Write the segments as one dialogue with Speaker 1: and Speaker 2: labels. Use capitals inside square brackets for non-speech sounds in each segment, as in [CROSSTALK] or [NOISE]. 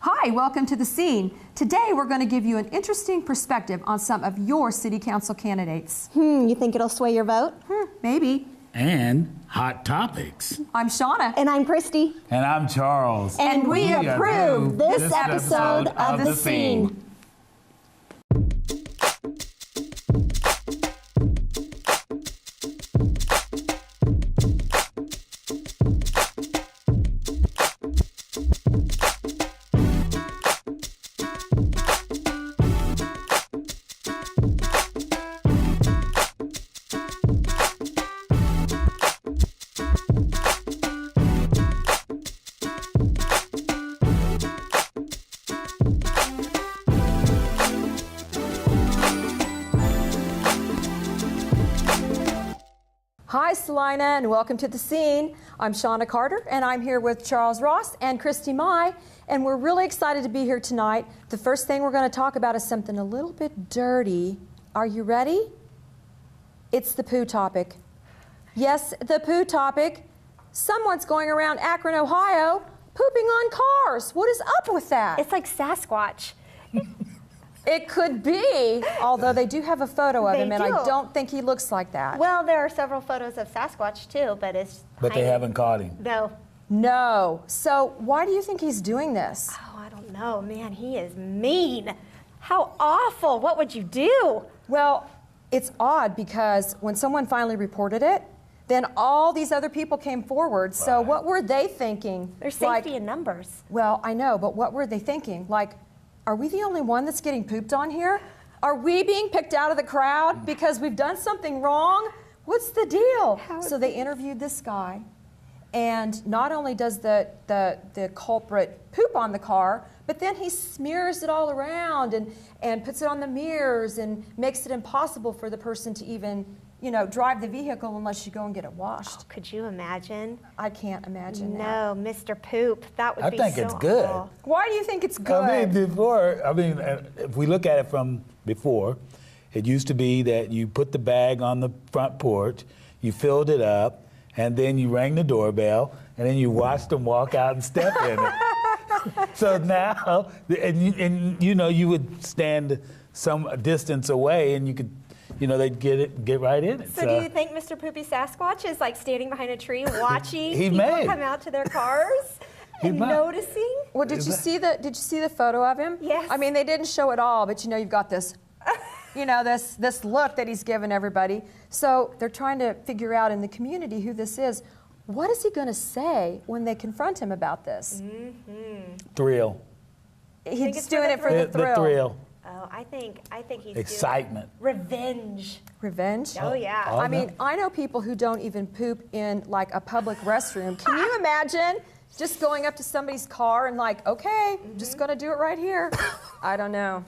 Speaker 1: Hi, welcome to the scene. Today we're going to give you an interesting perspective on some of your city council candidates.
Speaker 2: Hmm, you think it'll sway your vote?
Speaker 1: Hmm, maybe.
Speaker 3: and hot topics.
Speaker 1: I'm Shauna.
Speaker 2: And I'm Christy.
Speaker 4: And I'm Charles.
Speaker 2: And, we, approve this, episode of The Scene.
Speaker 1: Hi, Salina, and welcome to the scene. I'm Shauna Carter, and I'm here with Charles Ross and Christy Mai, and we're really excited to be here tonight. The first thing we're going to talk about is something a little bit dirty. Are you ready? It's the poo topic. Yes, the poo topic. Someone's going around Akron, Ohio, pooping on cars. What is up with that?
Speaker 5: It's like Sasquatch.
Speaker 1: It could be, although they do have a photo of
Speaker 5: They
Speaker 1: him, and I
Speaker 5: do.
Speaker 1: don't think he looks like that.
Speaker 5: Well, there are several photos of Sasquatch too, but it's.
Speaker 4: But they
Speaker 5: tiny.
Speaker 4: haven't caught him.
Speaker 5: No.
Speaker 1: no. So, why do you think he's doing this?
Speaker 5: Oh, I don't know, man. He is mean. How awful! What would you do?
Speaker 1: Well, it's odd because when someone finally reported it, then all these other people came forward. So,
Speaker 4: Right.
Speaker 1: what were they thinking?
Speaker 5: There's
Speaker 1: Like,
Speaker 5: safety in numbers.
Speaker 1: Well, I know, but what were they thinking? Like, are we the only one that's getting pooped on here? Are we being picked out of the crowd because we've done something wrong? What's the deal? so they interviewed this guy, and not only does the, the, the culprit poop on the car, but then he smears it all around and, and puts it on the mirrors and makes it impossible for the person to even, you know, drive the vehicle unless you go and get it washed.
Speaker 5: Could you imagine?
Speaker 1: I can't imagine that.
Speaker 5: No, Mr. Poop. That would
Speaker 4: I
Speaker 5: be
Speaker 4: think
Speaker 5: so
Speaker 4: it's good.
Speaker 5: awful.
Speaker 1: Why do you think it's good?
Speaker 4: I mean, before, I mean, uh, if we look at it from before, it used to be that you put the bag on the front porch, you filled it up, and then you rang the doorbell, and then you watched them walk out and step in it. [LAUGHS] so now, and you, and you know, you would stand some distance away, and you could, you know, they'd get it, get right in it.
Speaker 5: So, do you think Mr. Poopy Sasquatch is like standing behind a
Speaker 4: [LAUGHS]
Speaker 5: tree watching
Speaker 4: He
Speaker 5: people
Speaker 4: may.
Speaker 5: come out to their cars
Speaker 4: He
Speaker 5: and
Speaker 4: might.
Speaker 5: noticing?
Speaker 1: Well, did you see the did you see the photo of him?
Speaker 5: Yes.
Speaker 1: I mean, they didn't show it all, but you know, you've got
Speaker 5: [LAUGHS]
Speaker 1: this, you know, this this look that he's given everybody. So they're trying to figure out in the community who this is. What is he going to say when they confront him about this?
Speaker 5: Mm-hmm.
Speaker 4: thrill,
Speaker 5: Think
Speaker 1: He's
Speaker 5: it's for
Speaker 1: doing
Speaker 5: the
Speaker 1: it for the
Speaker 4: the,
Speaker 1: thrill.
Speaker 4: thrill,
Speaker 5: Oh, I think I think he's doing
Speaker 4: excitement.
Speaker 5: revenge.
Speaker 1: Revenge.
Speaker 5: Oh yeah.
Speaker 4: Oh,
Speaker 1: I mean, I know people who don't even poop in like a public restroom. Can you imagine just going up to somebody's car and like, okay,
Speaker 5: Mm-hmm.
Speaker 1: just going to do it right here? I don't know.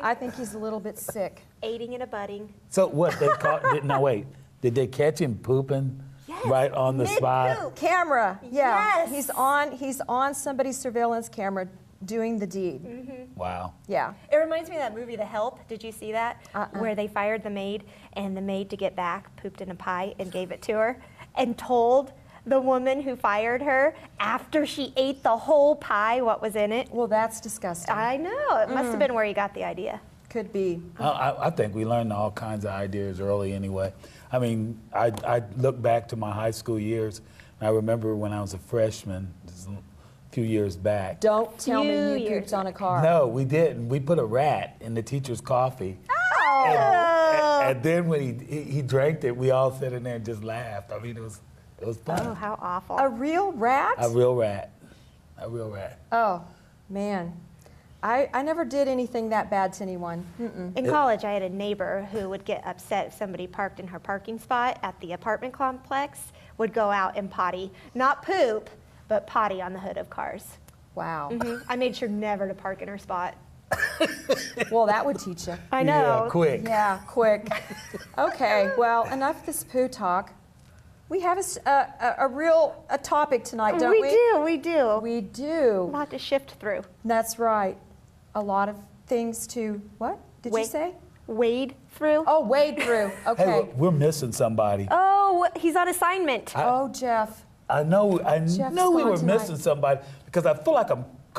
Speaker 1: I think he's a little bit sick.
Speaker 5: Aiding and abetting.
Speaker 4: So what they
Speaker 1: [LAUGHS]
Speaker 4: caught? did, no, wait. Did they catch him pooping right on the spot?
Speaker 5: Mid-poop.
Speaker 1: camera. Yeah.
Speaker 5: Yes.
Speaker 1: He's on he's on somebody's surveillance camera doing the deed.
Speaker 5: Mm-hmm.
Speaker 4: Wow.
Speaker 1: Yeah.
Speaker 5: It reminds me of that movie, The Help. Did you see that? Where they fired the maid, and the maid to get back pooped in a pie and gave it to her, and told the woman who fired her after she ate the whole pie what was in it.
Speaker 1: Well, that's disgusting.
Speaker 5: I know. It must have been where you got the idea.
Speaker 1: Could be.
Speaker 4: I, I- I think we learned all kinds of ideas early anyway. I mean, I, I look back to my high school years. And I remember when I was a freshman, just a few years back.
Speaker 1: Don't tell me
Speaker 5: Few
Speaker 1: you
Speaker 5: years
Speaker 1: pooped on a car.
Speaker 4: No, we didn't. We put a rat in the teacher's coffee.
Speaker 1: Oh.
Speaker 4: And, and, and then when he, he he drank it, we all sat in there and just laughed. I mean, it was it was
Speaker 5: Oh,
Speaker 4: fun.
Speaker 5: how awful.
Speaker 1: A real rat?
Speaker 4: A real rat. A real rat.
Speaker 1: oh, man. I, I never did anything that bad to anyone. Mm-mm.
Speaker 5: In college, I had a neighbor who would get upset if somebody parked in her parking spot at the apartment complex, would go out and potty. Not poop, but potty on the hood of cars.
Speaker 1: Wow.
Speaker 5: Mhm. [LAUGHS] I made sure never to park in her spot. Mm-hmm.
Speaker 1: Well, that would teach you.
Speaker 5: I
Speaker 4: Yeah,
Speaker 5: know.
Speaker 4: quick.
Speaker 1: Yeah,
Speaker 5: [LAUGHS]
Speaker 1: quick. Okay, well, enough this poo talk. We have a, s- a- a- a real a topic tonight, don't we?
Speaker 5: Oh, we do,
Speaker 1: We
Speaker 5: we do.
Speaker 1: do.
Speaker 5: a lot to shift through.
Speaker 1: That's right. A lot of things to what did you
Speaker 5: Wait.
Speaker 1: say?
Speaker 5: Wade through.
Speaker 1: Oh, wade through. Okay.
Speaker 4: Hey, we're missing somebody.
Speaker 5: Oh, he's on assignment.
Speaker 1: oh, Jeff.
Speaker 4: I know, I
Speaker 1: Jeff's
Speaker 4: know we
Speaker 1: gone
Speaker 4: were
Speaker 1: tonight.
Speaker 4: missing somebody because I feel like I'm